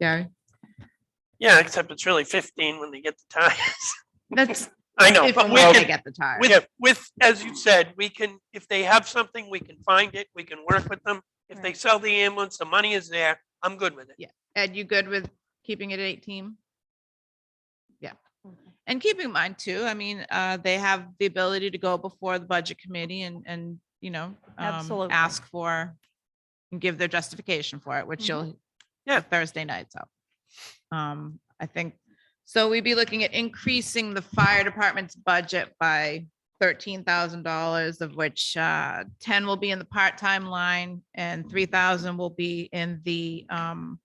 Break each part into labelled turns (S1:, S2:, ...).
S1: Gary?
S2: Yeah, except it's really fifteen when they get the tires.
S1: That's
S2: I know,
S1: if
S2: but
S1: and
S2: we
S1: when they
S2: can,
S1: get the tire.
S2: with, with, as you said, we can, if they have something, we can find it, we can work with them. If they
S1: Right.
S2: sell the ambulance, the money is there, I'm good with it.
S1: Ed, you good with keeping it at eighteen? Yeah. And keep in mind too, I mean, uh, they have the ability to go before the budget committee and, and, you know, um,
S3: Absolutely.
S1: ask for and give their justification for it, which
S3: Mhm.
S1: you'll
S2: Yeah.
S1: Thursday night, so. Um, I think, so we'd be looking at increasing the fire department's budget by thirteen thousand dollars, of which uh ten will be in the part-time line and three thousand will be in the um.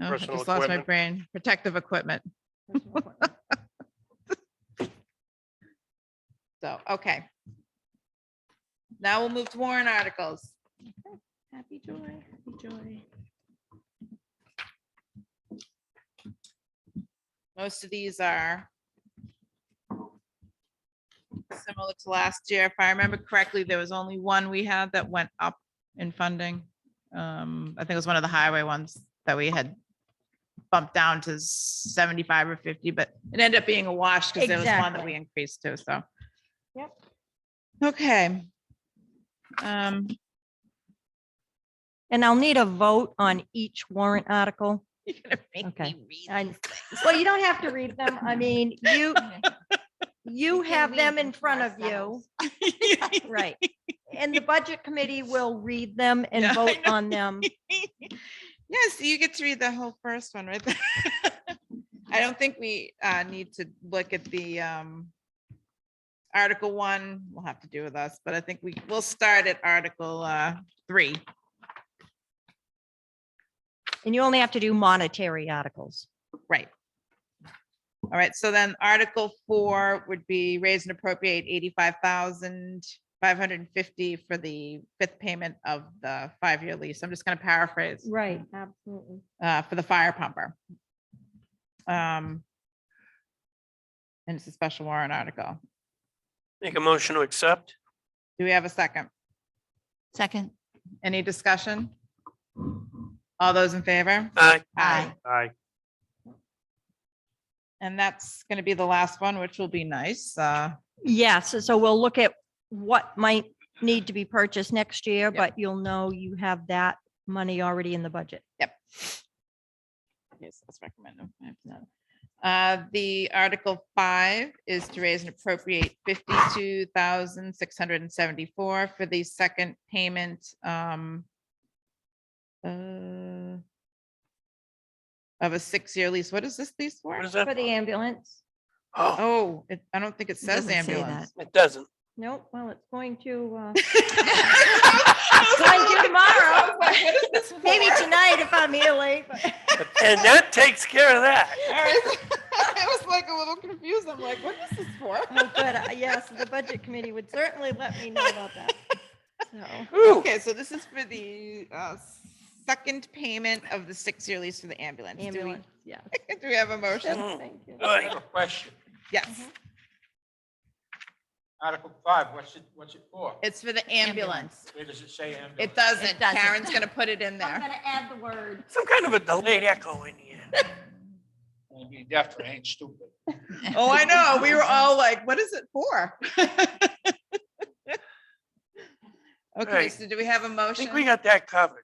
S1: oh, I
S2: Personal
S1: just lost my
S2: equipment.
S1: brain, protective equipment. So, okay. Now we'll move to warrant articles.
S3: Happy joy, happy joy.
S1: Most of these are similar to last year. If I remember correctly, there was only one we had that went up in funding. Um, I think it was one of the highway ones that we had bumped down to seventy-five or fifty, but it ended up being a wash because there was one that
S3: Exactly.
S1: we increased to, so.
S3: Yep.
S1: Okay. Um,
S3: And I'll need a vote on each warrant article.
S1: you're gonna make
S3: Okay.
S1: me read
S3: I- Well, you don't have to read them. I mean, you, you have them in front of you.
S1: these.
S3: Right. And the budget committee will read them and
S1: Yeah, I
S3: vote
S1: know.
S3: on them.
S1: Yes, you get to read the whole first one right there. I don't think we uh, need to look at the um, Article one, we'll have to do with us, but I think we, we'll start at Article uh, three.
S3: And you only have to do monetary articles.
S1: Right. All right, so then Article four would be raise and appropriate eighty-five thousand five hundred and fifty for the fifth payment of the five-year lease. I'm just gonna paraphrase.
S3: Right, absolutely.
S1: uh, for the fire pumper. Um, And it's a special warrant article.
S2: Make a motion to accept.
S1: Do we have a second?
S3: Second.
S1: Any discussion? All those in favor?
S2: Aye.
S1: Aye.
S2: Aye.
S1: And that's going to be the last one, which will be nice. Uh,
S3: Yes, so we'll look at what might need to be purchased next year, but you'll know you have that money already in the budget.
S1: yes, that's recommended. I have none. Uh, The Article five is to raise and appropriate fifty-two thousand six hundred and seventy-four for the second payment um, uh, of a six-year lease. What is this lease for?
S2: What is that?
S3: For the ambulance?
S2: Oh,
S1: Oh, it, I don't think it says
S3: doesn't say
S1: ambulance.
S2: it doesn't.
S3: Nope, well, it's going to, uh, Thank you tomorrow.
S1: tomorrow.
S3: maybe tonight if I'm here late. but- uh,
S2: And that takes care of that.
S1: I was like a little confused. I'm like, what is this for?
S3: Oh, good, uh, yes, the budget committee would certainly let me know about that. So,
S2: Ooh,
S1: Okay, so this is for the uh, second payment of the six-year lease for the ambulance. Do we-
S3: ambulance, yeah.
S1: Do we have a motion?
S2: Mm.
S3: Thank you.
S2: I have a question.
S1: Yes,
S4: Article five, what's it, what's it for?
S1: it's for the ambulance.
S4: Where does it say
S1: It
S4: ambulance?
S1: doesn't.
S5: It doesn't.
S1: Karen's gonna put it in
S5: I'm
S1: there.
S5: gonna add the word.
S2: Some kind of a delayed echo in here.
S4: Gonna be deaf or ain't stupid.
S1: Oh, I know. We were all like, what is it for? Okay,
S2: Right.
S1: so do we have a
S2: I
S1: motion?
S2: think we got that covered.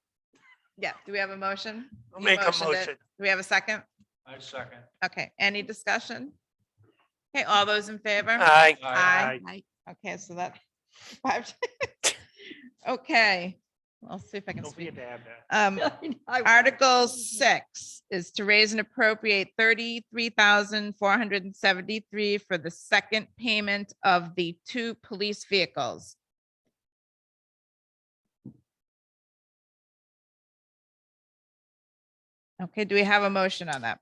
S1: Yeah, do we have a motion?
S2: I'll
S1: You
S2: make a
S1: motioned it.
S2: motion.
S1: Do we have a second?
S4: I second.
S1: Okay, any discussion? Okay, all those in favor?
S2: Aye.
S1: Aye.
S5: Aye.
S1: Okay, so that. five. Okay, I'll see if I can
S4: Don't
S1: speak.
S4: forget to add that.
S1: Um,
S3: I-
S1: Article six is to raise and appropriate thirty-three thousand four hundred and seventy-three for the second payment of the two police vehicles. Okay, do we have a motion on that?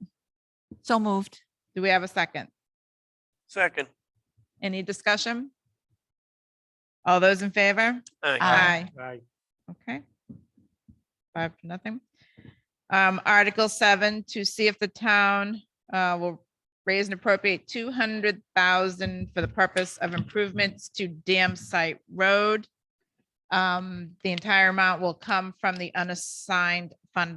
S5: So moved.
S1: Do we have a second?
S2: Second.
S1: Any discussion? All those in favor?
S2: Aye.
S5: Aye.
S4: Aye.
S1: Okay. Five, to nothing. Um, Article seven, to see if the town, uh, will raise and appropriate two hundred thousand for the purpose of improvements to dam site road. Um, the entire amount will come from the unassigned